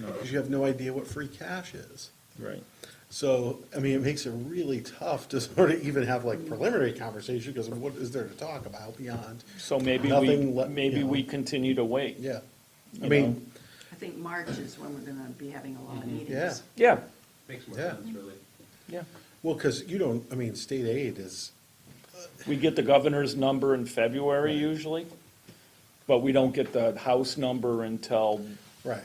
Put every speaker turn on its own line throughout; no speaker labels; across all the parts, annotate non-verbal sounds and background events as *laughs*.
because you have no idea what free cash is.
Right.
So, I mean, it makes it really tough to *laughs* sort of even have like preliminary conversation, because what is there to talk about beyond?
So maybe we,
Nothing le-
maybe
yeah.
we continue to wait.
Yeah, I
You know.
mean,
I think March is when we're gonna be having a lot of meetings.
yeah,
Yeah,
Makes more
Yeah.
sense, really.
yeah.
well, because you don't, I mean, state aid is,
We get the governor's number in February usually, but we don't get the house number until,
right.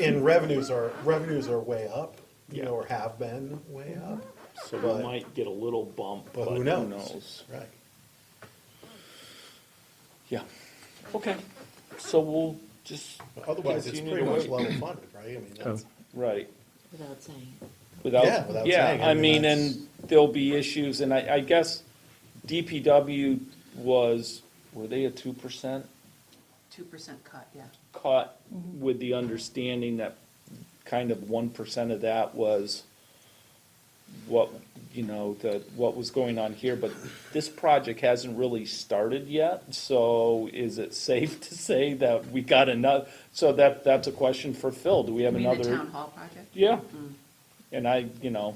And revenues are, revenues are way up, you
Yeah.
know, or have been way up,
so
But-
we might get a little bump,
but who knows? Right.
Yeah, okay, so we'll just.
But Otherwise, it's
continue
pretty
to
much
wait.
level funded, right? I mean, that's,
Right.
Without saying.
Yeah, without
Without, yeah,
saying, I
I
mean,
mean,
that's-
and there'll be issues, and I, I guess DPW was, were they a two percent
Two percent cut, yeah.
cut with the understanding that kind of one percent of that was what, you know, the, what was going on here, but this project hasn't really started yet, so is it safe to say that we got another, so that, that's a question for Phil, do we have
You mean
another?
the town Mm-hmm. hall project?
Yeah, and I, you know,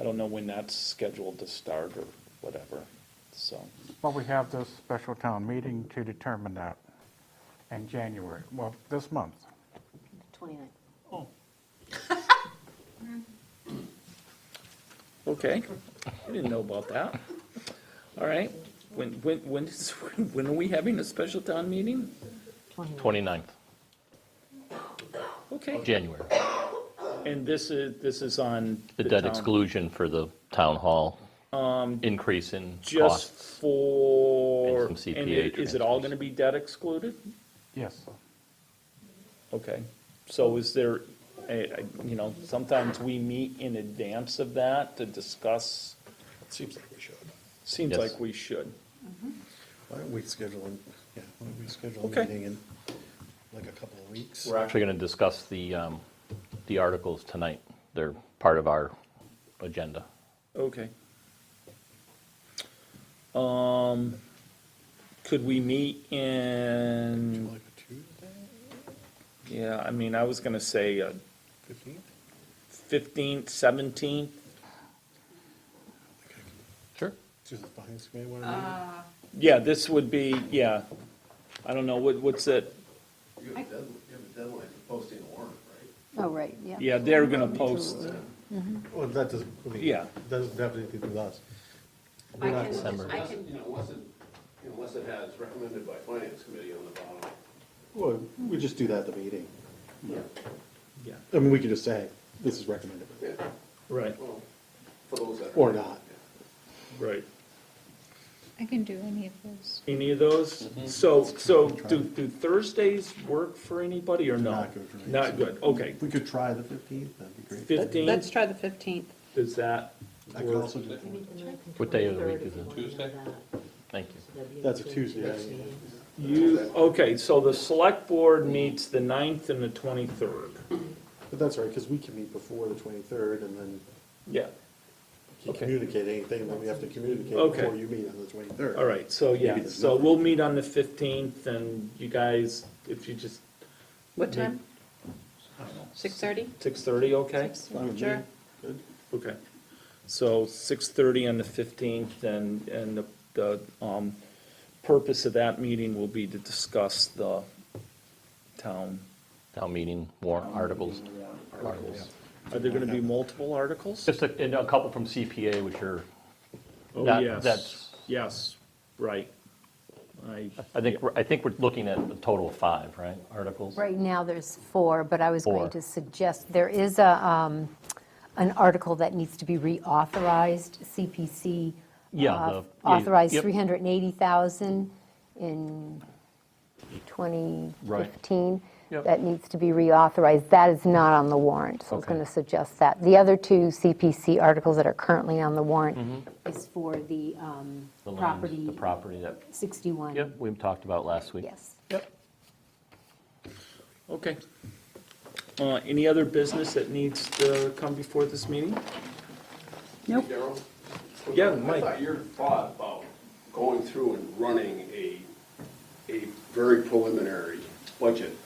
I don't know when that's scheduled to start or whatever, so,
Well, we have this special town meeting to determine that in January, well, this month.
29.
okay, I didn't know about that. All right, when, when, when *laughs* is, when are we having a special town meeting?
29th,
Okay,
January.
and this is, this is on.
The debt
town- Um,
exclusion for the town hall increase in
Just
costs.
for.
And some
and
CPA
it- Is it all gonna be debt excluded?
Yes,
Okay, so is there, eh, eh, you know, sometimes we meet in advance of that to discuss,
seems like we should.
seems
Yes.
like we should.
Why don't we schedule, an- yeah, why don't we schedule a
Okay.
meeting in like a couple of weeks?
We're actually going to discuss the, um, the articles tonight. They're part of our agenda.
Okay. Um, could we meet in,
Like a Tuesday,
yeah, I mean, I was gonna say uh,
fifteenth?
fifteenth, seventeenth,
Sure.
Susan's behind us, may want to
yeah, this would be, yeah. I don't know, what, what's it,
You have a deadline, you have a deadline for posting a warrant, right?
Oh, right, yeah.
yeah, they're gonna post,
meet. Well, that doesn't, I mean,
Yeah.
Doesn't have anything to do with us.
I
not
can, I
Unless,
can,
you know, unless it, you know, unless it has recommended by finance committee on the bottom.
Well, we just do that at the meeting.
Yeah.
yeah,
I mean, we could just say, this is recommended,
Yeah,
right,
well, for those that.
or not.
right.
I can do any of those.
Any of those? So, so do, do Thursdays work for anybody or no?
Not good for me.
Not good, okay.
If we could try the fifteenth, that'd be great.
Fifteen,
Let's try the 15th.
does that
I could
work?
also do, the-
What day of the week is it? Thank you.
that's a Tuesday. right?
You, okay, so the select board meets the ninth and the twenty-third.
But that's all right, because we can meet before the twenty-third and then
Yeah,
you
Okay.
communicate anything that we have to communicate
Okay.
before you meet on the twenty-third.
all right, so yeah,
Maybe there's
so
nothing.
we'll meet on the fifteenth and you guys, if you just,
What time? 6:30?
six-thirty, okay?
Sure.
Okay, so six-thirty on the fifteenth, and, and the, the, um, purpose of that meeting will be to discuss the town.
Town meeting, warrant articles. Articles.
Are there gonna be multiple articles?
Just a, and a couple from CPA, which are,
Oh,
that-
yes.
that's-
Yes, right. I,
I think, we're- I think we're looking at a total of five, right, articles?
Right now, there's four, but I was
Four.
going to suggest, there is a, um, an article that needs to be reauthorized, CPC.
Yeah,
uh,
the- yeah,
Authorized
yep.
380,000 in
Right.
2015.
Yep.
That needs to be reauthorized. That is not on the warrant, so I was
Okay.
going to suggest that. The other two CPC articles that are currently on the warrant is for the um,
Mm-hmm. The land,
property.
The property that,
61.
yep, we talked about last week.
Yes.
okay. Uh, any other business that needs to come before this meeting?
Nope.
Daryl?
Yeah,
I
Mike.
thought your thought about going through and running a, a very preliminary budget